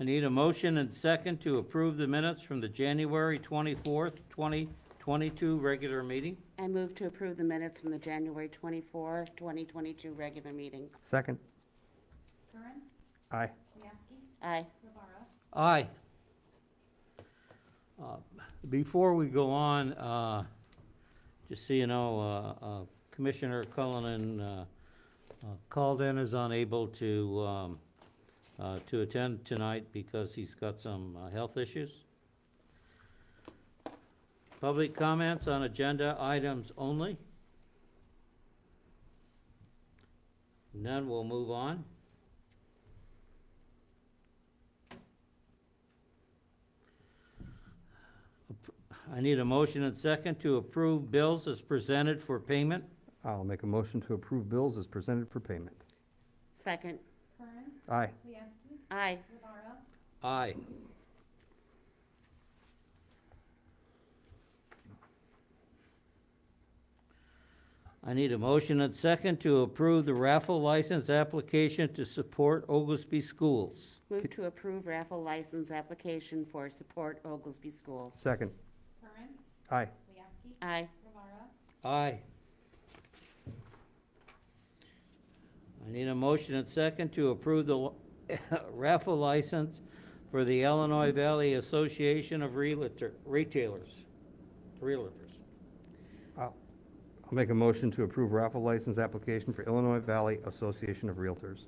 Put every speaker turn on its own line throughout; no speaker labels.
I need a motion and second to approve the minutes from the January twenty-fourth, twenty twenty-two regular meeting.
I move to approve the minutes from the January 24, 2022 regular meeting.
Second.
Curran,
Aye.
Mieski,
Aye.
Rivera,
Aye. Uh, Before we go on, uh, just so you know, uh, uh, Commissioner Cullinan uh, uh, called in, is unable to, um, uh, to attend tonight because he's got some uh, health issues. Public comments on agenda items only. None, we'll move on. I need a motion and second to approve bills as presented for payment.
I'll make a motion to approve bills as presented for payment.
Second.
Curran,
Aye.
Mieski,
Aye.
Rivera,
Aye. I need a motion and second to approve the raffle license application to support Oglesby schools.
Move to approve raffle license application for Support Oglesby Schools.
Second.
Curran,
Aye.
Mieski,
Aye.
Rivera,
Aye. I need a motion and second to approve the raffle license for the Illinois Valley Association of Realtor, Retailers, Realtors.
I'll I'll make a motion to approve raffle license application for Illinois Valley Association of Realtors.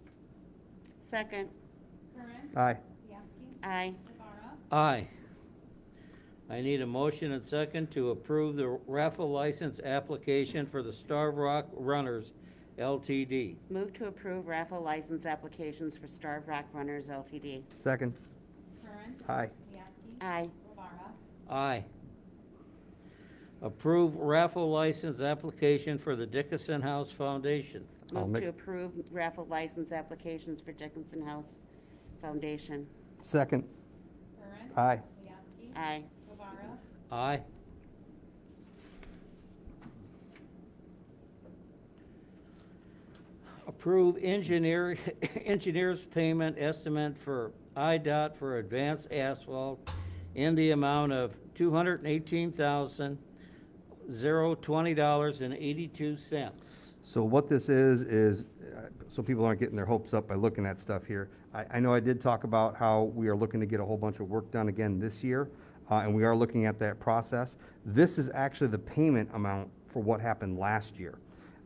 Second.
Curran,
Aye.
Mieski,
Aye.
Rivera,
Aye. I need a motion and second to approve the raffle license application for the Star Rock Runners LTD.
Move to approve raffle license applications for Starved Rock Runners LTD.
Second.
Curran,
Aye.
Mieski,
Aye.
Rivera,
Aye. Approve raffle license application for the Dickinson House Foundation.
I'll
Move
make-
to approve raffle license applications for Dickinson House Foundation.
Second.
Curran,
Aye.
Mieski,
Aye.
Rivera,
Aye. Approve engineer, engineer's payment estimate for IDOT for advanced asphalt in the amount of two hundred and eighteen thousand, zero, twenty dollars and eighty-two cents.
So what this is, is, uh, so people aren't getting their hopes up by looking at stuff here. I, I know I did talk about how we are looking to get a whole bunch of work done again this year, uh, and we are looking at that process. This is actually the payment amount for what happened last year.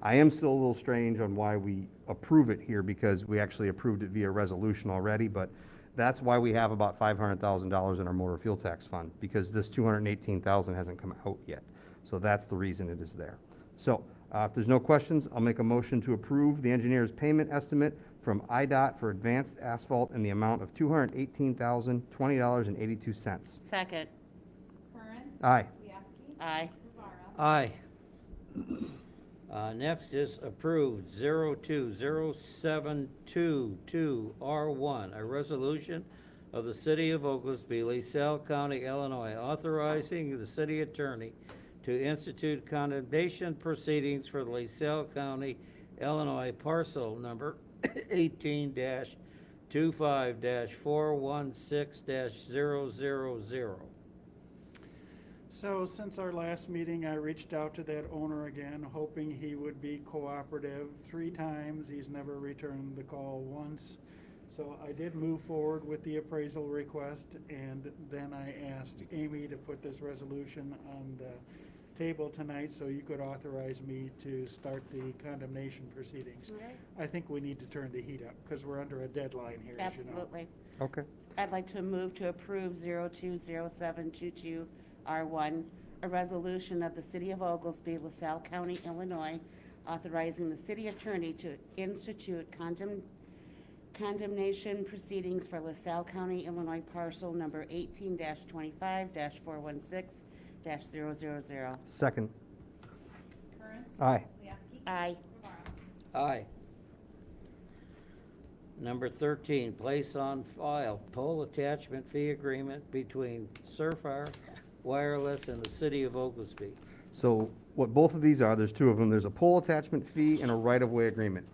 I am still a little strange on why we approve it here, because we actually approved it via resolution already, but that's why we have about five hundred thousand dollars in our motor fuel tax fund, because this two hundred and eighteen thousand hasn't come out yet. So that's the reason it is there. So uh, if there's no questions, I'll make a motion to approve the engineer's payment estimate from IDOT for advanced asphalt in the amount of $218,020.82.
Second.
Curran,
Aye.
Mieski,
Aye.
Rivera,
Aye. Uh, next is approved zero two zero seven two two R one, a resolution of the city of Oglesby, LaSalle County, Illinois, authorizing the city attorney to institute condemnation proceedings for the LaSalle County, Illinois parcel number eighteen dash two-five dash four-one-six dash zero-zero-zero.
So since our last meeting, I reached out to that owner again, hoping he would be cooperative. Three times, he's never returned the call once. So I did move forward with the appraisal request, and then I asked Amy to put this resolution on the table tonight so you could authorize me to start the condemnation proceedings.
Mm-hmm.
I think we need to turn the heat up, because we're under a deadline here, as you know.
Absolutely.
Okay.
I'd like to move to approve 020722R1, a resolution of the City of Oglesby, LaSalle County, Illinois, authorizing the city attorney to institute condemn- condemnation proceedings for LaSalle County, Illinois parcel number 18-25-416-000.
Second.
Curran,
Aye.
Mieski,
Aye.
Rivera,
Aye. Number thirteen, place on file pole attachment fee agreement between Surfire Wireless and the City of Oglesby.
So what both of these are, there's two of them, there's a pole attachment fee and a right-of-way agreement.